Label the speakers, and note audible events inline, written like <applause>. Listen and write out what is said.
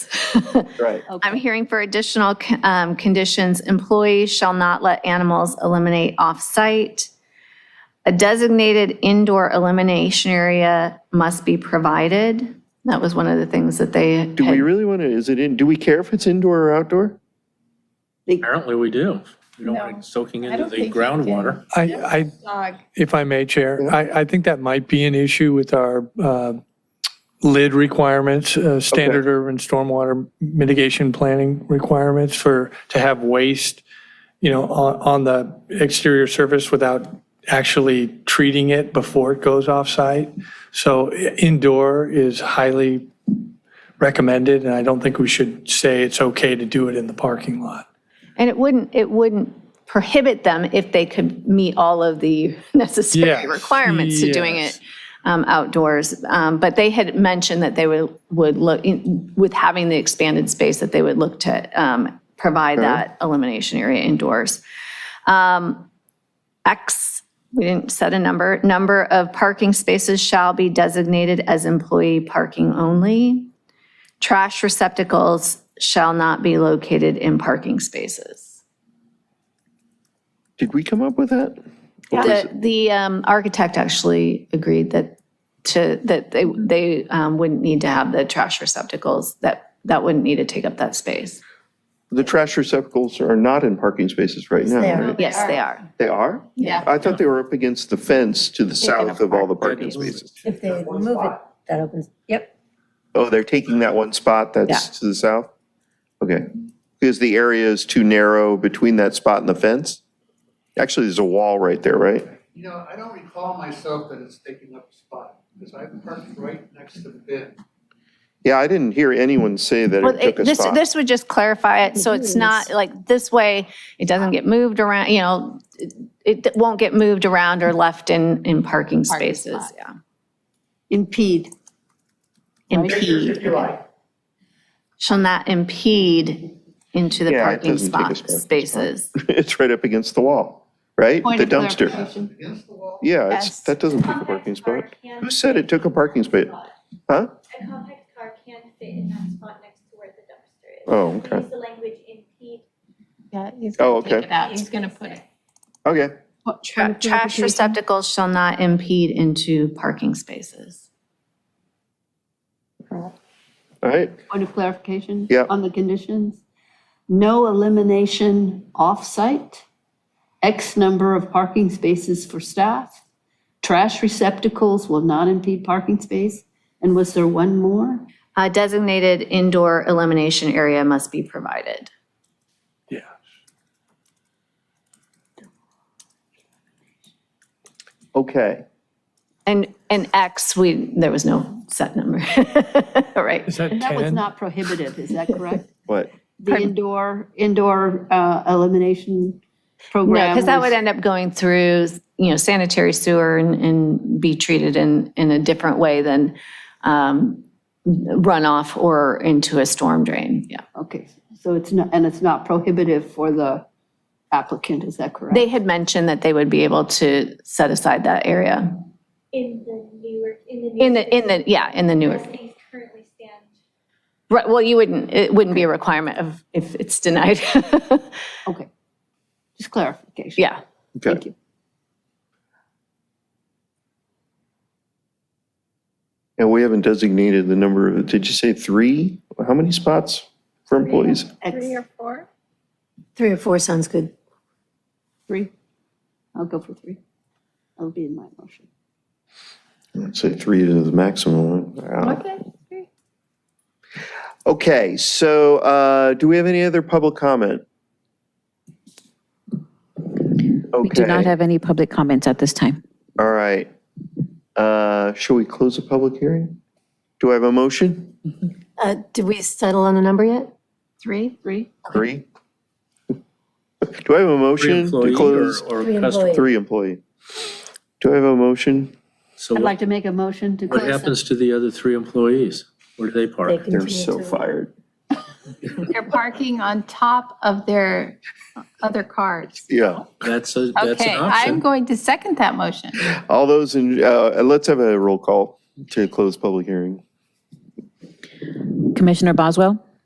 Speaker 1: Right.
Speaker 2: Okay.
Speaker 3: <laughs> I'm hearing for additional c- um, conditions, employees shall not let animals eliminate off-site. A designated indoor elimination area must be provided. That was one of the things that they had.
Speaker 1: Do we really want to, is it in, do we care if it's indoor or outdoor?
Speaker 4: Apparently we do. We don't want it soaking into
Speaker 2: don't
Speaker 4: the
Speaker 2: think you can.
Speaker 4: groundwater.
Speaker 5: I, I,
Speaker 2: Dog.
Speaker 5: if I may, Chair, I, I think that might be an issue with our uh, lid requirements, uh, standard urban stormwater mitigation planning requirements for, to have waste, you know, on, on the exterior surface without actually treating it before it goes off-site. So i- indoor is highly recommended, and I don't think we should say it's okay to do it in the parking lot.
Speaker 3: And it wouldn't, it wouldn't prohibit them if they could meet all of the <laughs> necessary
Speaker 5: Yes,
Speaker 3: requirements to doing
Speaker 5: yes.
Speaker 3: it um, outdoors. Um, But they had mentioned that they would, would look, in- with having the expanded space, that they would look to um, provide that elimination area indoors. Um, X, we didn't set a number, number of parking spaces shall be designated as employee parking only. Trash receptacles shall not be located in parking spaces.
Speaker 1: Did we come up with that? Or is
Speaker 3: The,
Speaker 1: it-
Speaker 3: the um, architect actually agreed that to, that they, they um, wouldn't need to have the trash receptacles, that, that wouldn't need to take up that space.
Speaker 1: The trash receptacles are not in parking spaces right now,
Speaker 2: Oh, they are.
Speaker 1: right?
Speaker 3: Yes, they are.
Speaker 1: They are?
Speaker 3: Yeah.
Speaker 1: I thought they were up against the fence to the
Speaker 3: Taking
Speaker 1: south of all the
Speaker 3: apart.
Speaker 1: parking spaces.
Speaker 2: If they remove it, that opens, yep.
Speaker 1: Oh, they're taking that one spot that's to the south? Okay. Because the area is too narrow between that spot and the fence? Actually, there's a wall right there, right?
Speaker 6: You know, I don't recall myself that it's taking up a spot, because I parked right next to the bin.
Speaker 1: Yeah, I didn't hear anyone say that
Speaker 3: Well,
Speaker 1: it
Speaker 3: it-
Speaker 1: took a
Speaker 3: this,
Speaker 1: spot.
Speaker 3: this would just clarify it, so
Speaker 2: Mm-hmm.
Speaker 3: it's not, like, this way, it doesn't get moved around, you know, it it won't get moved around or left in, in parking spaces,
Speaker 2: spot.
Speaker 3: yeah.
Speaker 2: Impede.
Speaker 3: Impede,
Speaker 6: If you like.
Speaker 3: shall not impede into the
Speaker 1: Yeah, it
Speaker 3: parking
Speaker 1: doesn't take a
Speaker 3: spot,
Speaker 1: spot.
Speaker 3: spaces.
Speaker 1: <laughs> It's right up against the wall, right?
Speaker 2: Point
Speaker 1: The
Speaker 2: of
Speaker 1: dumpster.
Speaker 2: clarification.
Speaker 6: Against the wall.
Speaker 1: Yeah, it's,
Speaker 3: Yes.
Speaker 1: that doesn't take a parking spot. Who said it took a parking space? Huh?
Speaker 7: A compact car can fit in that spot next to where the dumpster is.
Speaker 1: Oh, okay.
Speaker 7: Use the language impede
Speaker 2: Yeah, he's
Speaker 1: Oh,
Speaker 2: gonna take
Speaker 1: okay.
Speaker 2: it out. He's gonna put it.
Speaker 1: Okay.
Speaker 3: Tra- Trash receptacles shall not impede into parking spaces.
Speaker 1: All right.
Speaker 8: Point of clarification?
Speaker 1: Yeah.
Speaker 8: On the conditions? No elimination off-site, X number of parking spaces for staff, trash receptacles will not impede parking space, and was there one more?
Speaker 3: A designated indoor elimination area must be provided.
Speaker 5: Yeah.
Speaker 1: Okay.
Speaker 3: And, and X, we, there was no set number, <laughs> right?
Speaker 5: Is that 10?
Speaker 8: And that was not prohibitive, is that correct? <laughs>
Speaker 1: What?
Speaker 8: The indoor, indoor uh, elimination
Speaker 3: No,
Speaker 8: program?
Speaker 3: because that
Speaker 8: was-
Speaker 3: would end up going through, you know, sanitary sewer and, and be treated in, in a different way than um, runoff or into a storm drain, yeah.
Speaker 8: Okay, so it's not, and it's not prohibitive for the applicant, is that correct?
Speaker 3: They had mentioned that they would be able to set aside that area
Speaker 7: in the newer, in the new.
Speaker 3: in the, in the, yeah, in the newer.
Speaker 7: As these currently stand.
Speaker 3: Right, well, you wouldn't, it wouldn't be a requirement of, if it's denied. <laughs>
Speaker 8: Okay. Just clarification.
Speaker 3: Yeah,
Speaker 8: Thank
Speaker 1: Okay.
Speaker 8: you.
Speaker 1: And we haven't designated the number of, did you say three? How many spots for employees?
Speaker 8: X
Speaker 7: four?
Speaker 2: Three or four sounds good.
Speaker 8: three. I'll go for three. That'll be in my motion.
Speaker 1: I'd say three is the maximum. Okay.
Speaker 7: three.
Speaker 1: Okay, so uh, do we have any other public comment?
Speaker 9: We do not
Speaker 1: Okay,
Speaker 9: have any public comments at this time.
Speaker 1: all right. Uh, Shall we close the public hearing? Do I have a motion?
Speaker 2: Uh, did we settle on a number yet? Three?
Speaker 8: Three?
Speaker 1: Three? <laughs> Do I have a
Speaker 4: Three
Speaker 1: motion to
Speaker 4: employee or,
Speaker 1: close?
Speaker 4: or
Speaker 2: Three
Speaker 4: customer.
Speaker 2: employees.
Speaker 1: Three employee. Do I have a motion?
Speaker 4: So
Speaker 8: I'd like
Speaker 4: what,
Speaker 8: to make a motion to
Speaker 4: what
Speaker 8: close. the-
Speaker 4: happens to the other three employees? Where do they park?
Speaker 1: They're so fired.
Speaker 10: They're parking on top of their other cars.
Speaker 1: Yeah.
Speaker 4: That's a, that's
Speaker 10: Okay, I'm
Speaker 4: an option.
Speaker 10: going to second that motion.
Speaker 1: All those in, uh, let's have a roll call to close public hearing.
Speaker 9: Commissioner Boswell,